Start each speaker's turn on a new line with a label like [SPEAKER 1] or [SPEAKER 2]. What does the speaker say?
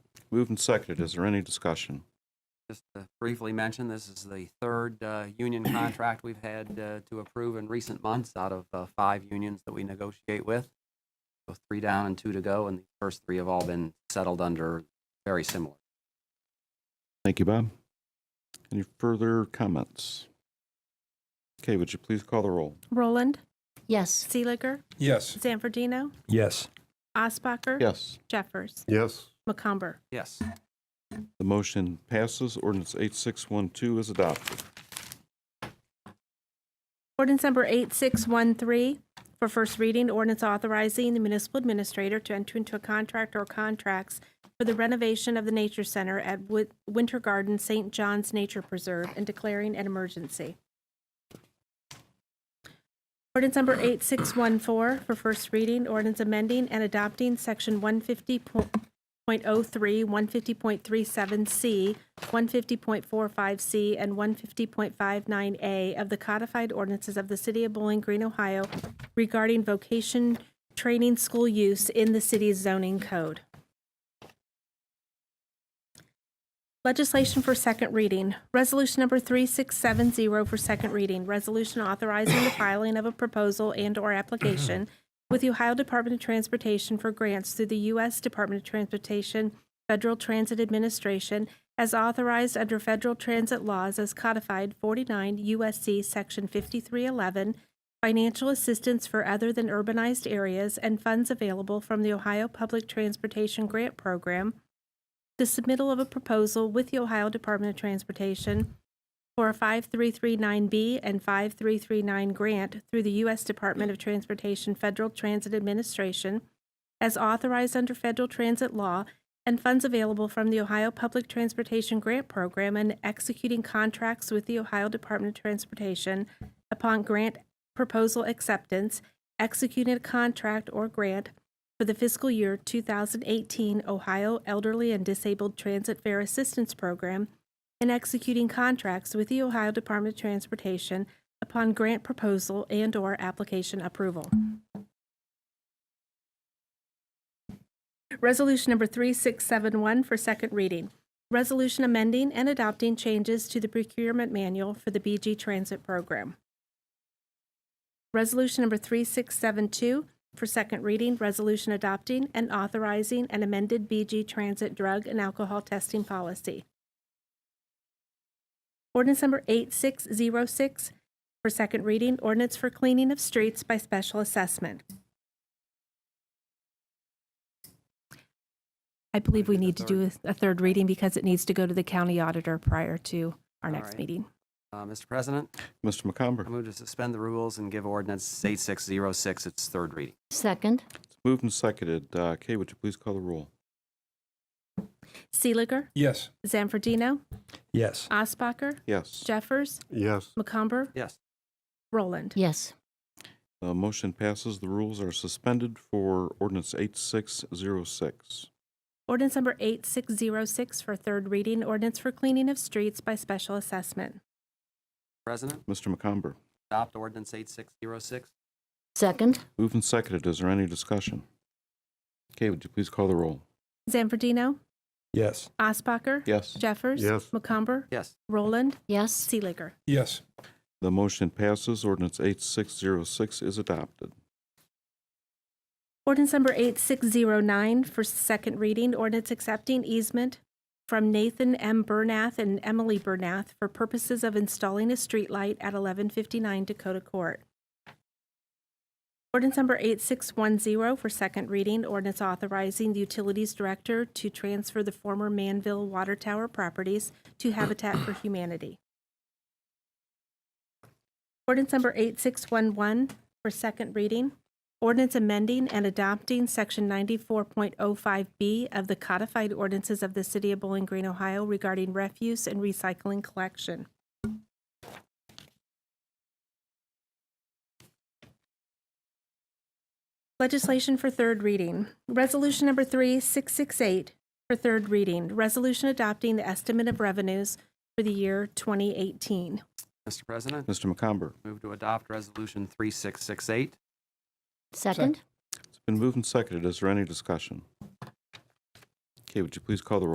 [SPEAKER 1] Moved and seconded. Is there any discussion?
[SPEAKER 2] Just to briefly mention, this is the third uh, union contract we've had uh, to approve in recent months out of uh, five unions that we negotiate with. So three down and two to go, and the first three have all been settled under very similar.
[SPEAKER 1] Thank you, Bob. Any further comments? Okay, would you please call the roll?
[SPEAKER 3] Roland,
[SPEAKER 4] Yes.
[SPEAKER 3] Seeliger,
[SPEAKER 5] Yes.
[SPEAKER 3] Zanfordino,
[SPEAKER 5] Yes.
[SPEAKER 3] Osbacher,
[SPEAKER 1] Yes.
[SPEAKER 3] Jeffers,
[SPEAKER 5] Yes.
[SPEAKER 3] McCumber.
[SPEAKER 2] Yes.
[SPEAKER 1] The motion passes. Ordinance 8612 is adopted.
[SPEAKER 3] Ordinance number 8613 for first reading, ordinance authorizing the municipal administrator to enter into a contract or contracts for the renovation of the Nature Center at Wi- Winter Garden St. John's Nature Preserve and declaring an emergency. Ordinance number 8614 for first reading, ordinance amending and adopting section 150.03, 150.37C, 150.45C, and 150.59A of the codified ordinances of the City of Bowling Green, Ohio regarding vocation training school use in the city's zoning code. Legislation for second reading. Resolution number 3670 for second reading. Resolution authorizing the filing of a proposal and/or application with the Ohio Department of Transportation for grants through the U.S. Department of Transportation Federal Transit Administration as authorized under federal transit laws as codified 49 U.S.C. Section 5311, financial assistance for other than urbanized areas, and funds available from the Ohio Public Transportation Grant Program the submittal of a proposal with the Ohio Department of Transportation for a 5339B and 5339 grant through the U.S. Department of Transportation Federal Transit Administration as authorized under federal transit law and funds available from the Ohio Public Transportation Grant Program and executing contracts with the Ohio Department of Transportation upon grant proposal acceptance, executing a contract or grant for the fiscal year 2018 Ohio Elderly and Disabled Transit Fare Assistance Program and executing contracts with the Ohio Department of Transportation upon grant proposal and/or application approval. Resolution number 3671 for second reading. Resolution amending and adopting changes to the procurement manual for the BG Transit Program. Resolution number 3672 for second reading, resolution adopting and authorizing an amended BG Transit drug and alcohol testing policy. Ordinance number 8606 for second reading, ordinance for cleaning of streets by special assessment. I believe we need to do a a third reading because it needs to go to the county auditor prior to our
[SPEAKER 2] All
[SPEAKER 3] next
[SPEAKER 2] right.
[SPEAKER 3] meeting.
[SPEAKER 2] Uh, Mr. President,
[SPEAKER 1] Mr.
[SPEAKER 2] I
[SPEAKER 1] McComber.
[SPEAKER 2] move to suspend the rules and give ordinance 8606 its third reading.
[SPEAKER 4] Second.
[SPEAKER 1] It's moved and seconded. Uh, Kay, would you please call the roll?
[SPEAKER 3] Seeliger,
[SPEAKER 5] Yes.
[SPEAKER 3] Zanfordino,
[SPEAKER 5] Yes.
[SPEAKER 3] Osbacher,
[SPEAKER 1] Yes.
[SPEAKER 3] Jeffers,
[SPEAKER 5] Yes.
[SPEAKER 3] McComber,
[SPEAKER 2] Yes.
[SPEAKER 3] Roland.
[SPEAKER 4] Yes.
[SPEAKER 1] The motion passes. The rules are suspended for ordinance 8606.
[SPEAKER 3] Ordinance number 8606 for third reading, ordinance for cleaning of streets by special assessment.
[SPEAKER 2] President,
[SPEAKER 1] Mr. McComber.
[SPEAKER 2] adopt ordinance 8606.
[SPEAKER 4] Second.
[SPEAKER 1] Moved and seconded. Is there any discussion? Okay, would you please call the roll?
[SPEAKER 3] Zanfordino,
[SPEAKER 5] Yes.
[SPEAKER 3] Osbacher.
[SPEAKER 1] Yes.
[SPEAKER 3] Jeffers.
[SPEAKER 5] Yes.
[SPEAKER 3] McComber.
[SPEAKER 2] Yes.
[SPEAKER 3] Roland.
[SPEAKER 4] Yes.
[SPEAKER 3] Seeliger.
[SPEAKER 5] Yes.
[SPEAKER 1] The motion passes. Ordinance 8606 is adopted.
[SPEAKER 3] Ordinance number 8609 for second reading, ordinance accepting easement from Nathan M. Bernath and Emily Bernath for purposes of installing a streetlight at 1159 Dakota Court. Ordinance number 8610 for second reading, ordinance authorizing the Utilities Director to transfer the former Manville Water Tower properties to Habitat for Humanity. Ordinance number 8611 for second reading, Ordinance amending and adopting Section 94.05B of the codified ordinances of the City of Bowling Green, Ohio regarding refuse and recycling collection. Legislation for third reading. Resolution number 3668 for third reading. Resolution adopting the estimate of revenues for the year 2018.
[SPEAKER 2] Mr. President,
[SPEAKER 1] Mr. McComber.
[SPEAKER 2] move to adopt resolution 3668.
[SPEAKER 4] Second.
[SPEAKER 1] It's been moved and seconded. Is there any discussion? Okay, would you please call the roll?